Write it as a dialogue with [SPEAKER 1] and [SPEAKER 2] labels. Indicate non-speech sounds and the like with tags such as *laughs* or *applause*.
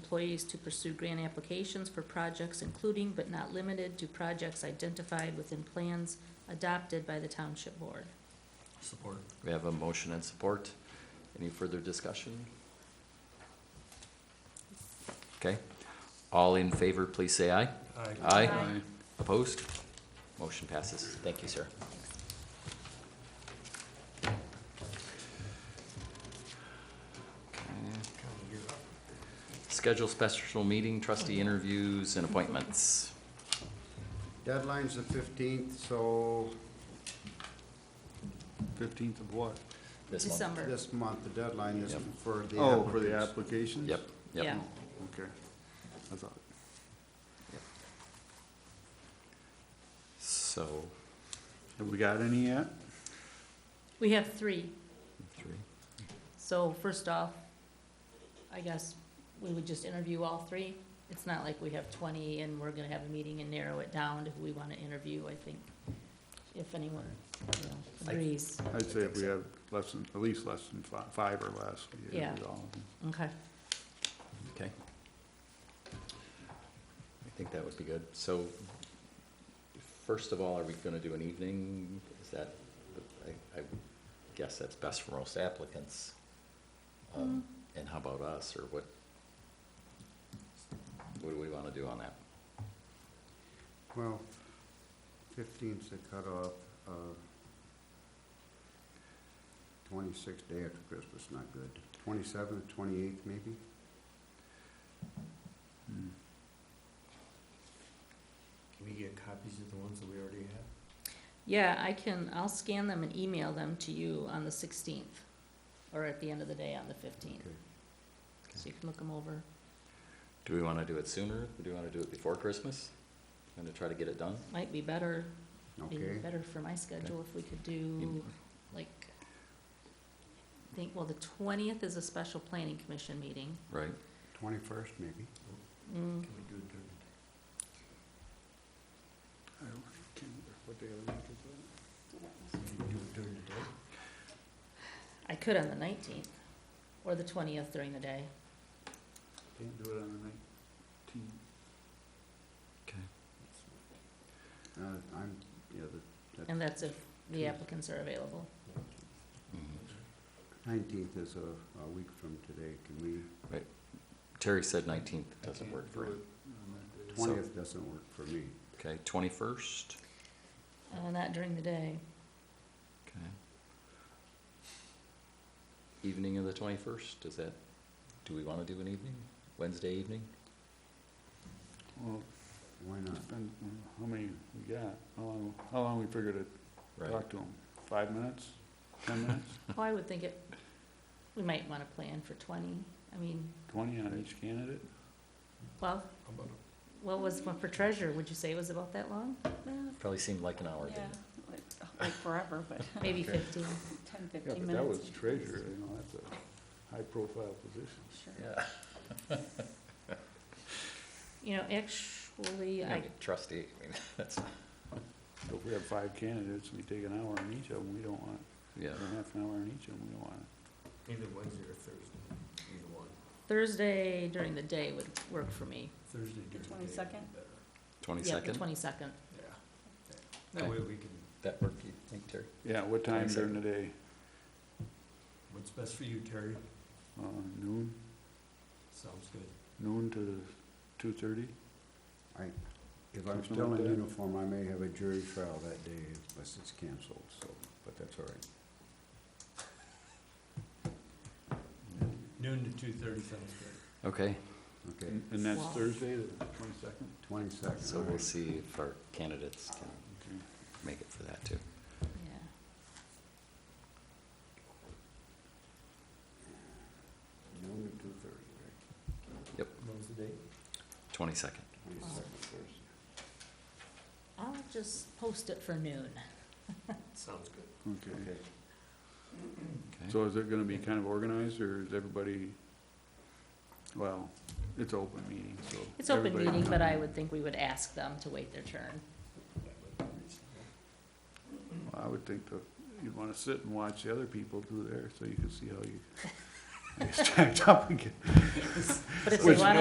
[SPEAKER 1] employees to pursue grant applications for projects including but not limited to projects identified within plans adopted by the township board.
[SPEAKER 2] Support.
[SPEAKER 3] We have a motion and support. Any further discussion? Okay. All in favor, please say aye. Aye.
[SPEAKER 1] Aye.
[SPEAKER 3] Opposed? Motion passes. Thank you, sir. Schedule special meeting, trustee interviews and appointments.
[SPEAKER 4] Deadline's the fifteenth, so
[SPEAKER 5] Fifteenth of what?
[SPEAKER 3] This month.
[SPEAKER 1] December.
[SPEAKER 4] this month, the deadline is
[SPEAKER 3] Yep.
[SPEAKER 4] for the
[SPEAKER 5] Oh, for the
[SPEAKER 4] applicants.
[SPEAKER 5] applications?
[SPEAKER 3] Yep,
[SPEAKER 1] Yeah.
[SPEAKER 3] yep.
[SPEAKER 5] Okay. I thought,
[SPEAKER 3] So,
[SPEAKER 5] have we got any yet?
[SPEAKER 1] We have three.
[SPEAKER 3] three.
[SPEAKER 1] So first off, I guess we would just interview all three. It's not like we have twenty and we're gonna have a meeting and narrow it down to who we wanna interview, I think. If anyone, you know, agrees,
[SPEAKER 5] I'd say
[SPEAKER 3] think
[SPEAKER 5] if we
[SPEAKER 3] so.
[SPEAKER 5] have less than, at least less than fi- five or less. we could
[SPEAKER 1] Yeah.
[SPEAKER 5] do all of them.
[SPEAKER 1] okay.
[SPEAKER 3] Okay. I think that would be good. So, first of all, are we gonna do an evening? Is that, I, I guess that's best for most applicants. Um, And how about us, or what? What do we wanna do on that?
[SPEAKER 4] Well, fifteenth's the cutoff, uh, twenty-sixth day after Christmas, not good. Twenty-seventh, twenty-eighth maybe?
[SPEAKER 5] Hmm.
[SPEAKER 2] Can we get copies of the ones that we already have?
[SPEAKER 1] Yeah, I can, I'll scan them and email them to you on the sixteenth, or at the end of the day on the fifteenth,
[SPEAKER 4] Okay.
[SPEAKER 1] so you can look them over.
[SPEAKER 3] Do we wanna do it sooner? Do we wanna do it before Christmas? Gonna try to get it done?
[SPEAKER 1] Might be better, be
[SPEAKER 4] Okay,
[SPEAKER 1] better for my schedule if we could do, like, I think, well, the twentieth is a special planning commission meeting.
[SPEAKER 3] Right?
[SPEAKER 4] twenty-first maybe?
[SPEAKER 1] Mm,
[SPEAKER 2] Can we do it during the day?
[SPEAKER 5] I don't can't remember what day of the week is
[SPEAKER 2] Can we do it during the day?
[SPEAKER 1] I could on the nineteenth, or the twentieth during the day.
[SPEAKER 5] that? Can't do it on the nineteenth.
[SPEAKER 3] Okay.
[SPEAKER 4] Uh, I'm, yeah, the,
[SPEAKER 1] And that's if the applicants are available.
[SPEAKER 3] Mm-hmm.
[SPEAKER 4] nineteenth is a, a week from today, can we,
[SPEAKER 3] Terry said nineteenth doesn't work for him. So-
[SPEAKER 4] twentieth doesn't work for me.
[SPEAKER 3] Okay, twenty-first?
[SPEAKER 1] Uh, not during the
[SPEAKER 4] *laughs*
[SPEAKER 1] day.
[SPEAKER 3] Okay. Evening of the twenty-first, is that, do we wanna do an evening, Wednesday evening?
[SPEAKER 5] Well,
[SPEAKER 4] Why
[SPEAKER 5] it's
[SPEAKER 4] not?
[SPEAKER 5] been, how many we got? How long, how long we figured to
[SPEAKER 3] Right,
[SPEAKER 5] talk to them? Five minutes? Ten minutes?
[SPEAKER 1] Oh, I would think it, we might wanna plan for twenty, I mean,
[SPEAKER 5] Twenty on each candidate?
[SPEAKER 1] well,
[SPEAKER 2] How about
[SPEAKER 1] what was one for treasure, would you say it was about that long?
[SPEAKER 3] probably seemed like an hour, didn't it?
[SPEAKER 6] Like forever, but
[SPEAKER 1] *laughs* Maybe
[SPEAKER 5] Okay.
[SPEAKER 1] fifteen.
[SPEAKER 6] ten,
[SPEAKER 5] Yeah,
[SPEAKER 6] fifteen
[SPEAKER 5] but
[SPEAKER 6] minutes.
[SPEAKER 5] that was treasurer, you know, that's a high-profile position.
[SPEAKER 6] Sure.
[SPEAKER 3] Yeah.
[SPEAKER 1] You know, actually,
[SPEAKER 3] You
[SPEAKER 1] I,
[SPEAKER 3] know, Trustee, I mean, *laughs* that's,
[SPEAKER 5] So if we have five candidates, and we take an hour on each of them, we don't want,
[SPEAKER 3] yeah,
[SPEAKER 5] or half an hour on each of them, we don't want it.
[SPEAKER 2] Either Wednesday or Thursday, either one.
[SPEAKER 1] Thursday during the day would work for me.
[SPEAKER 2] Thursday during the day. would be
[SPEAKER 6] 22nd?
[SPEAKER 2] better.
[SPEAKER 1] Yeah, the
[SPEAKER 3] twenty-second,
[SPEAKER 1] twenty-second.
[SPEAKER 2] Yeah.
[SPEAKER 3] Okay.
[SPEAKER 2] That way we can,
[SPEAKER 3] that work, you think, Terry?
[SPEAKER 5] Yeah, what time during the day?
[SPEAKER 2] what's best for you, Terry?
[SPEAKER 5] Uh, noon,
[SPEAKER 2] Sounds good.
[SPEAKER 5] noon to two-thirty?
[SPEAKER 4] *laughs* If I'm
[SPEAKER 5] Something
[SPEAKER 4] still
[SPEAKER 5] like
[SPEAKER 4] in
[SPEAKER 5] that.
[SPEAKER 4] uniform, I may have a jury trial that day unless it's canceled, so, but that's all right.
[SPEAKER 2] Noon to two thirty sounds good.
[SPEAKER 3] Okay,
[SPEAKER 4] Okay,
[SPEAKER 5] And and that's
[SPEAKER 1] Wow.
[SPEAKER 5] Thursday, the twenty-second?
[SPEAKER 4] twenty-second.
[SPEAKER 3] so we'll see if our candidates can
[SPEAKER 5] Okay.
[SPEAKER 3] make it for that too.
[SPEAKER 1] Yeah.
[SPEAKER 4] Noon to two-thirty,
[SPEAKER 2] What was the date?
[SPEAKER 3] Twenty-second,
[SPEAKER 4] right? Twenty-second,
[SPEAKER 1] I'll just post it for noon.
[SPEAKER 2] Sounds good.
[SPEAKER 5] Okay.
[SPEAKER 3] okay?
[SPEAKER 5] So is it gonna be kind of organized, or is everybody, well, it's open meeting, so.
[SPEAKER 1] It's open
[SPEAKER 5] everybody-
[SPEAKER 1] meeting, but I would think we would ask them to wait their turn.
[SPEAKER 2] That would be reasonable.
[SPEAKER 5] I would think that you'd wanna sit and watch the other people do theirs, so you can see how you, I *laughs* stacked up again.
[SPEAKER 1] But if
[SPEAKER 5] Which
[SPEAKER 1] they wanna